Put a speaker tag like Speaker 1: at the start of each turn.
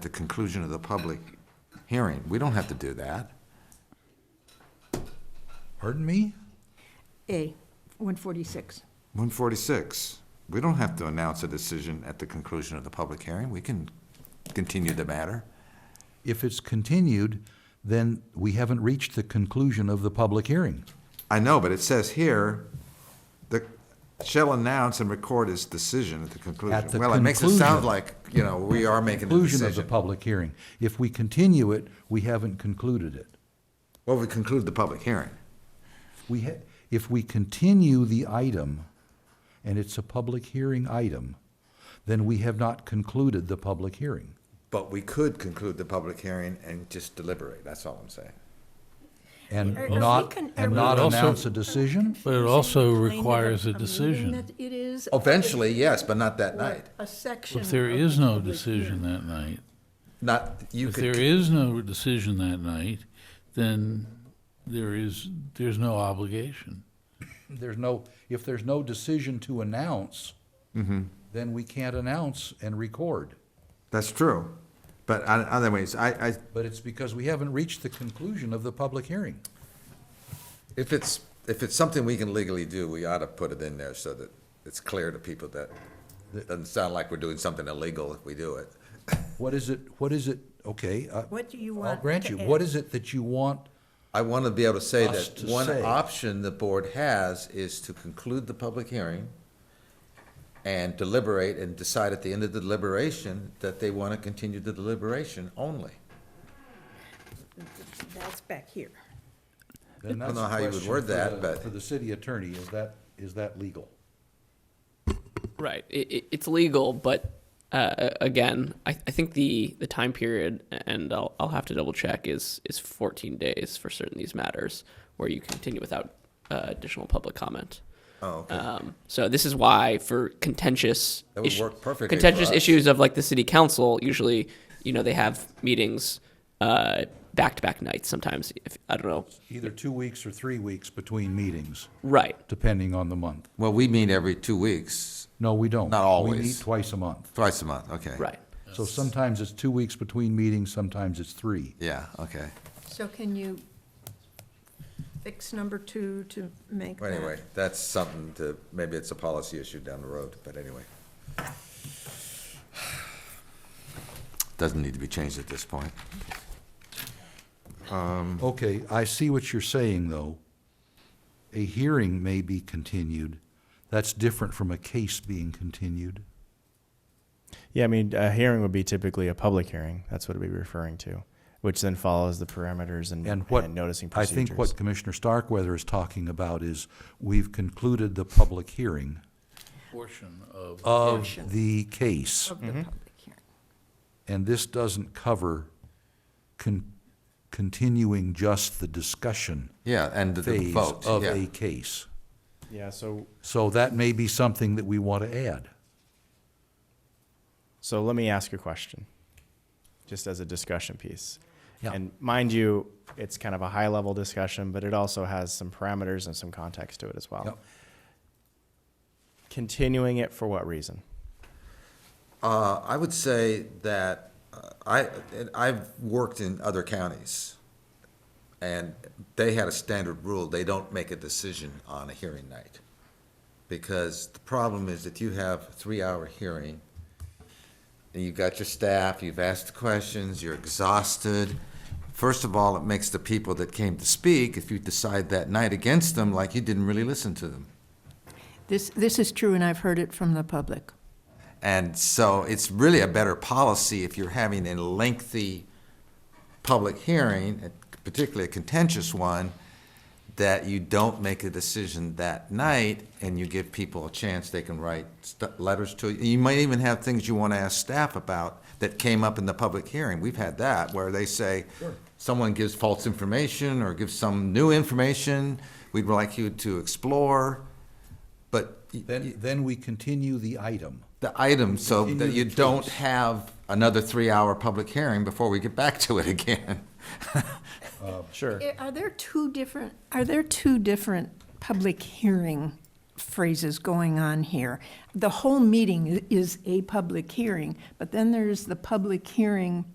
Speaker 1: the conclusion of the public hearing. We don't have to do that.
Speaker 2: Pardon me?
Speaker 3: A, 146.
Speaker 1: One forty-six, we don't have to announce a decision at the conclusion of the public hearing. We can continue the matter.
Speaker 2: If it's continued, then we haven't reached the conclusion of the public hearing.
Speaker 1: I know, but it says here, the, shall announce and record his decision at the conclusion.
Speaker 2: At the
Speaker 1: Well, it makes it sound
Speaker 2: conclusion.
Speaker 1: like, you know, we are making a
Speaker 2: Conclusion of the
Speaker 1: decision.
Speaker 2: public hearing. If we continue it, we haven't concluded it.
Speaker 1: Well, we conclude the public hearing.
Speaker 2: We ha, if we continue the item, and it's a public hearing item, then we have not concluded the public hearing.
Speaker 1: But we could conclude the public hearing and just deliberate, that's all I'm saying.
Speaker 2: And
Speaker 3: Are- are we
Speaker 2: not,
Speaker 3: con- are
Speaker 2: and
Speaker 3: we-
Speaker 2: not
Speaker 4: Also-
Speaker 2: announce a decision?
Speaker 4: But it also requires a decision.
Speaker 3: It is.
Speaker 1: Eventually, yes, but not that night.
Speaker 3: A section.
Speaker 4: If there
Speaker 3: of
Speaker 4: is
Speaker 3: the
Speaker 4: no
Speaker 3: public hearing.
Speaker 4: decision that night,
Speaker 1: Not, you
Speaker 4: if there
Speaker 1: could,
Speaker 4: is no decision that night, then there is, there's no obligation.
Speaker 2: There's no, if there's no decision to announce, then we can't announce and record.
Speaker 1: that's true. But on- other ways, I, I,
Speaker 2: But it's because we haven't reached the conclusion of the public hearing.
Speaker 1: if it's, if it's something we can legally do, we ought to put it in there so that it's clear to people that it doesn't sound like we're doing something illegal if we do it.
Speaker 2: What is it, what is it, okay, uh,
Speaker 3: What do you
Speaker 2: I'll
Speaker 3: want?
Speaker 2: grant
Speaker 3: to
Speaker 2: you,
Speaker 3: add?
Speaker 2: what is it that you want?
Speaker 1: I want to be able to say
Speaker 2: Us
Speaker 1: that
Speaker 2: to
Speaker 1: one
Speaker 2: say.
Speaker 1: option the board has is to conclude the public hearing and deliberate and decide at the end of the deliberation that they want to continue the deliberation only.
Speaker 3: That's back here.
Speaker 2: Then
Speaker 1: I don't
Speaker 2: that's
Speaker 1: know
Speaker 2: the
Speaker 1: how you would
Speaker 2: question
Speaker 1: word
Speaker 2: for
Speaker 1: that,
Speaker 2: the-
Speaker 1: but-
Speaker 2: For the city attorney, is that, is that legal?
Speaker 5: Right. It, it, it's legal, but uh, again, I, I think the, the time period, and I'll, I'll have to double check, is, is 14 days for certain these matters where you continue without uh, additional public comment.
Speaker 1: Oh, okay.
Speaker 5: Um, so this is why for contentious
Speaker 1: That would work perfectly for
Speaker 5: contentious
Speaker 1: us.
Speaker 5: issues of like the city council, usually, you know, they have meetings uh, back-to-back nights sometimes. If I don't know.
Speaker 2: Either two weeks or three weeks between meetings,
Speaker 5: Right.
Speaker 2: depending on the month.
Speaker 1: Well, we meet every two weeks,
Speaker 2: No, we don't.
Speaker 1: Not
Speaker 2: We
Speaker 1: always.
Speaker 2: meet twice a month.
Speaker 1: twice a month, okay.
Speaker 5: Right.
Speaker 2: So sometimes it's two weeks between meetings, sometimes it's three.
Speaker 1: Yeah, okay.
Speaker 3: So can you fix number two to make
Speaker 1: Well,
Speaker 3: that?
Speaker 1: Anyway, that's something to, maybe it's a policy issue down the road, but anyway. Doesn't need to be changed at this point. Mm.
Speaker 2: Okay, I see what you're saying, though. A hearing may be continued. That's different from a case being continued.
Speaker 6: Yeah, I mean, a hearing would be typically a public hearing. That's what it'd be referring to, which then follows the parameters and,
Speaker 2: And what?
Speaker 6: noticing procedures.
Speaker 2: I think what Commissioner Starkweather is talking about is, we've concluded the public hearing
Speaker 4: Portion of,
Speaker 2: of the case,
Speaker 3: Of the public hearing.
Speaker 2: and this doesn't cover con- continuing just the discussion
Speaker 1: Yeah, and the- the
Speaker 2: phase
Speaker 1: vote,
Speaker 2: of
Speaker 1: yeah.
Speaker 2: a case.
Speaker 6: Yeah, so
Speaker 2: So that may be something that we want to add.
Speaker 6: so let me ask a question, just as a discussion piece.
Speaker 2: Yeah.
Speaker 6: And mind you, it's kind of a high level discussion, but it also has some parameters and some context to it as well.
Speaker 2: Yep.
Speaker 6: Continuing it for what reason?
Speaker 1: Uh, I would say that uh, I, and I've worked in other counties, and they had a standard rule, they don't make a decision on a hearing night. Because the problem is that you have a three-hour hearing, and you've got your staff, you've asked questions, you're exhausted. First of all, it makes the people that came to speak, if you decide that night against them, like you didn't really listen to them.
Speaker 3: This, this is true, and I've heard it from the public.
Speaker 1: And so it's really a better policy if you're having a lengthy public hearing, particularly a contentious one, that you don't make a decision that night and you give people a chance they can write st- letters to you. You might even have things you want to ask staff about that came up in the public hearing. We've had that where they say someone gives false information or gives some new information we'd like you to explore, but. y-
Speaker 2: Then, then we continue the item.
Speaker 1: the item so
Speaker 2: Continue
Speaker 1: that you
Speaker 2: the case.
Speaker 1: don't have another three-hour public hearing before we get back to it again.
Speaker 6: Sure.
Speaker 3: Eh, Are there two different, are there two different public hearing phrases going on here? The whole meeting i- is a public hearing, but then there's the public hearing